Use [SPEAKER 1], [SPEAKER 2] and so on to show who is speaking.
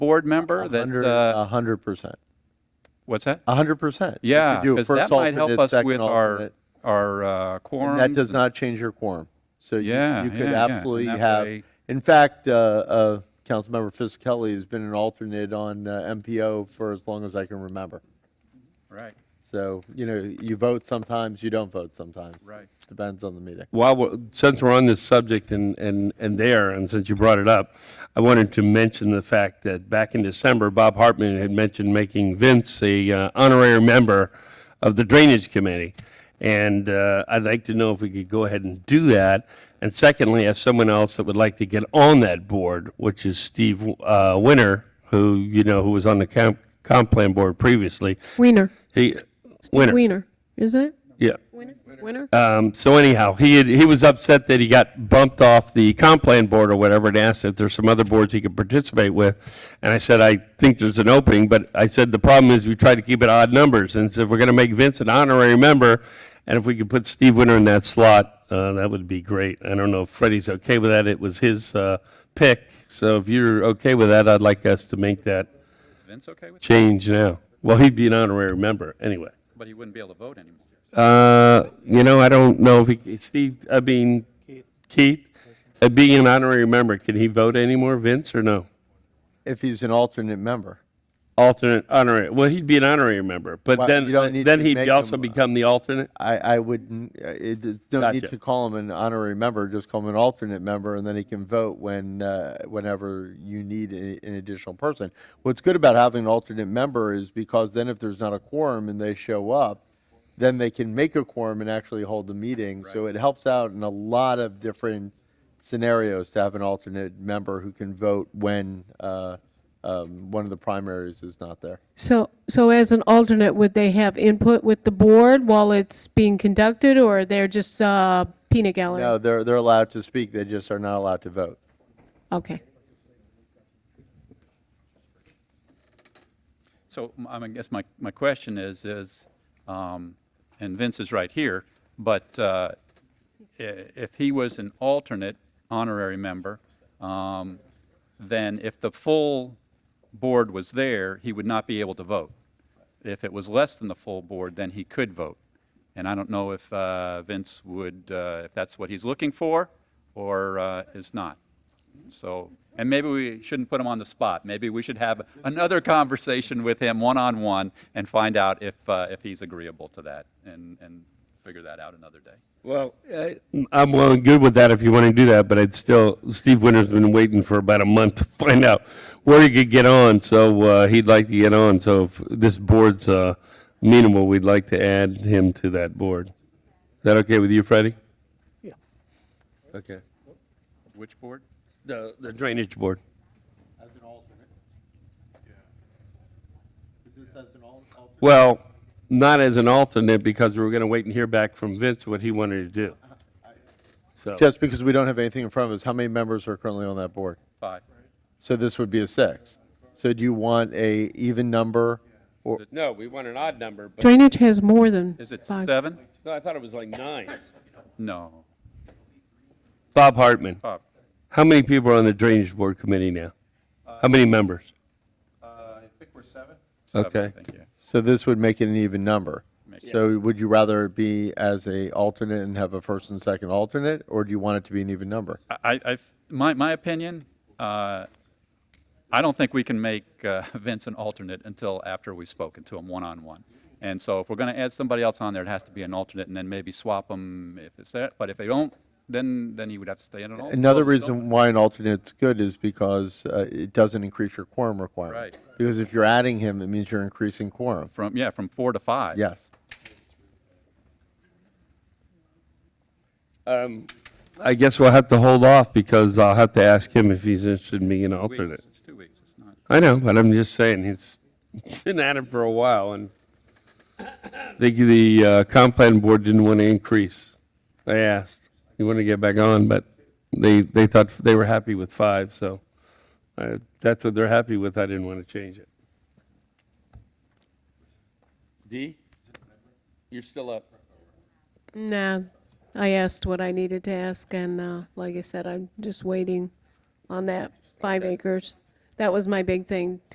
[SPEAKER 1] board member that, uh,
[SPEAKER 2] A hundred percent,
[SPEAKER 1] what's that?
[SPEAKER 2] a hundred percent. If you
[SPEAKER 1] Yeah,
[SPEAKER 2] do
[SPEAKER 1] because
[SPEAKER 2] first
[SPEAKER 1] that might help
[SPEAKER 2] alternate,
[SPEAKER 1] us
[SPEAKER 2] second
[SPEAKER 1] with our,
[SPEAKER 2] alternate,
[SPEAKER 1] our uh,
[SPEAKER 2] and
[SPEAKER 1] quorums.
[SPEAKER 2] That does
[SPEAKER 1] and-
[SPEAKER 2] not change your quorum. So you,
[SPEAKER 1] Yeah,
[SPEAKER 2] you could
[SPEAKER 1] yeah, yeah, and
[SPEAKER 2] absolutely
[SPEAKER 1] that
[SPEAKER 2] have,
[SPEAKER 1] way-
[SPEAKER 2] in fact, uh, uh, Councilmember Fisickelli has been an alternate on uh, MPO for as long as I can remember.
[SPEAKER 1] Right,
[SPEAKER 2] So, you know, you vote sometimes, you don't vote sometimes.
[SPEAKER 1] Right.
[SPEAKER 2] Depends on the meeting.
[SPEAKER 3] While, we're- since we're on this subject and, and, and there, and since you brought it up, I wanted to mention the fact that back in December, Bob Hartman had mentioned making Vince a uh, honorary member of the Drainage Committee. And uh, I'd like to know if we could go ahead and do that. And secondly, if someone else that would like to get on that board, which is Steve uh, Winter, who, you know, who was on the comp, comp plan board previously.
[SPEAKER 4] Wiener.
[SPEAKER 3] He,
[SPEAKER 4] Wiener.
[SPEAKER 3] Winter,
[SPEAKER 4] Is it?
[SPEAKER 3] yeah.
[SPEAKER 4] Wiener? Wiener?
[SPEAKER 3] Um, so anyhow, he had, he was upset that he got bumped off the comp plan board or whatever, and asked if there's some other boards he could participate with. And I said, I think there's an opening, but I said the problem is we try to keep it odd numbers, and so if we're going to make Vince an honorary member, and if we could put Steve Winter in that slot, uh, that would be great. I don't know if Freddie's okay with that. It was his uh, pick, so if you're okay with that, I'd like us to make that
[SPEAKER 1] is Vince okay with that?
[SPEAKER 3] change now. Well, he'd be an honorary member anyway.
[SPEAKER 1] But he wouldn't be able to vote anymore.
[SPEAKER 3] Uh, you know, I don't know if he, Steve, I mean, Keith, uh, being an honorary member, can he vote anymore, Vince, or no?
[SPEAKER 2] If he's an alternate member.
[SPEAKER 3] Alternate, honorary, well, he'd be an honorary member, but
[SPEAKER 2] Well,
[SPEAKER 3] then,
[SPEAKER 2] you don't need
[SPEAKER 3] then
[SPEAKER 2] to
[SPEAKER 3] he'd
[SPEAKER 2] make
[SPEAKER 3] also
[SPEAKER 2] him, uh,
[SPEAKER 3] become the alternate?
[SPEAKER 2] I, I wouldn't, uh, it, it's no need
[SPEAKER 3] Gotcha.
[SPEAKER 2] to call him an honorary member, just call him an alternate member, and then he can vote when, uh, whenever you need a, an additional person. What's good about having an alternate member is because then if there's not a quorum and they show up, then they can make a quorum and actually hold the meeting. So it helps out in a lot of different scenarios to have an alternate member who can vote when, uh, um, one of the primaries is not there.
[SPEAKER 4] So, so as an alternate, would they have input with the board while it's being conducted, or they're just uh, peanut gallery?
[SPEAKER 2] No, they're, they're allowed to speak, they just are not allowed to vote.
[SPEAKER 4] Okay.
[SPEAKER 1] So m- I mean, I guess my, my question is, is, um, and Vince is right here, but uh, i- if he was an alternate honorary member, um, then if the full board was there, he would not be able to vote. If it was less than the full board, then he could vote. And I don't know if uh, Vince would, uh, if that's what he's looking for or uh, is not. So, and maybe we shouldn't put him on the spot. Maybe we should have another conversation with him one-on-one and find out if, uh, if he's agreeable to that and, and figure that out another day.
[SPEAKER 3] Well, I'm well and good with that if you want to do that, but I'd still, Steve Winter's been waiting for about a month to find out where he could get on, so uh, he'd like to get on, so if this board's uh, amenable, we'd like to add him to that board. Is that okay with you, Freddie?
[SPEAKER 4] Yeah.
[SPEAKER 3] Okay.
[SPEAKER 1] Which board?
[SPEAKER 3] The the drainage board.
[SPEAKER 2] As an alternate? Is this as an alternate?
[SPEAKER 3] Well, not as an alternate, because we were going to wait and hear back from Vince what he wanted to do. So,
[SPEAKER 2] Just because we don't have anything in front of us, how many members are currently on that board?
[SPEAKER 1] Five.
[SPEAKER 2] So this would be a six. So do you want a even number? Or,
[SPEAKER 3] no, we want an odd number, but
[SPEAKER 4] Drainage has more than
[SPEAKER 1] Is it
[SPEAKER 4] five.
[SPEAKER 1] seven?
[SPEAKER 3] I thought it was like nine.
[SPEAKER 1] No.
[SPEAKER 3] Bob Hartman,
[SPEAKER 1] Bob,
[SPEAKER 3] how many people are on the drainage board committee now? How many members?
[SPEAKER 5] I think we're seven.
[SPEAKER 1] seven,
[SPEAKER 3] Okay.
[SPEAKER 1] thank you.
[SPEAKER 2] so this would make it an even number.
[SPEAKER 1] Makes
[SPEAKER 2] So would you rather it be as a alternate and have a first and second alternate, or do you want it to be an even number?
[SPEAKER 1] I, I, my, my opinion, uh, I don't think we can make uh, Vince an alternate until after we've spoken to him one-on-one. And so if we're going to add somebody else on there, it has to be an alternate, and then maybe swap them if it's that. But if they don't, then, then he would have to stay in an alternate.
[SPEAKER 2] Another reason why an alternate's good is because uh, it doesn't increase your quorum requirement.
[SPEAKER 1] Right.
[SPEAKER 2] Because if you're adding him, it means you're increasing quorum.
[SPEAKER 1] From, yeah, from four to five.
[SPEAKER 2] Yes.
[SPEAKER 3] Um, I guess we'll have to hold off, because I'll have to ask him if he's interested in being an
[SPEAKER 1] Weeks,
[SPEAKER 3] alternate.
[SPEAKER 1] It's two weeks, it's not.
[SPEAKER 3] I know, but I'm just saying, he's been at it for a while, and I think the uh, comp plan board didn't want to increase. I asked, he wanted to get back on, but they, they thought they were happy with five, so uh, that's what they're happy with, I didn't want to change it. D, you're still up.
[SPEAKER 4] Nah, I asked what I needed to ask, and uh, like I said, I'm just waiting on that five acres. That was my big thing,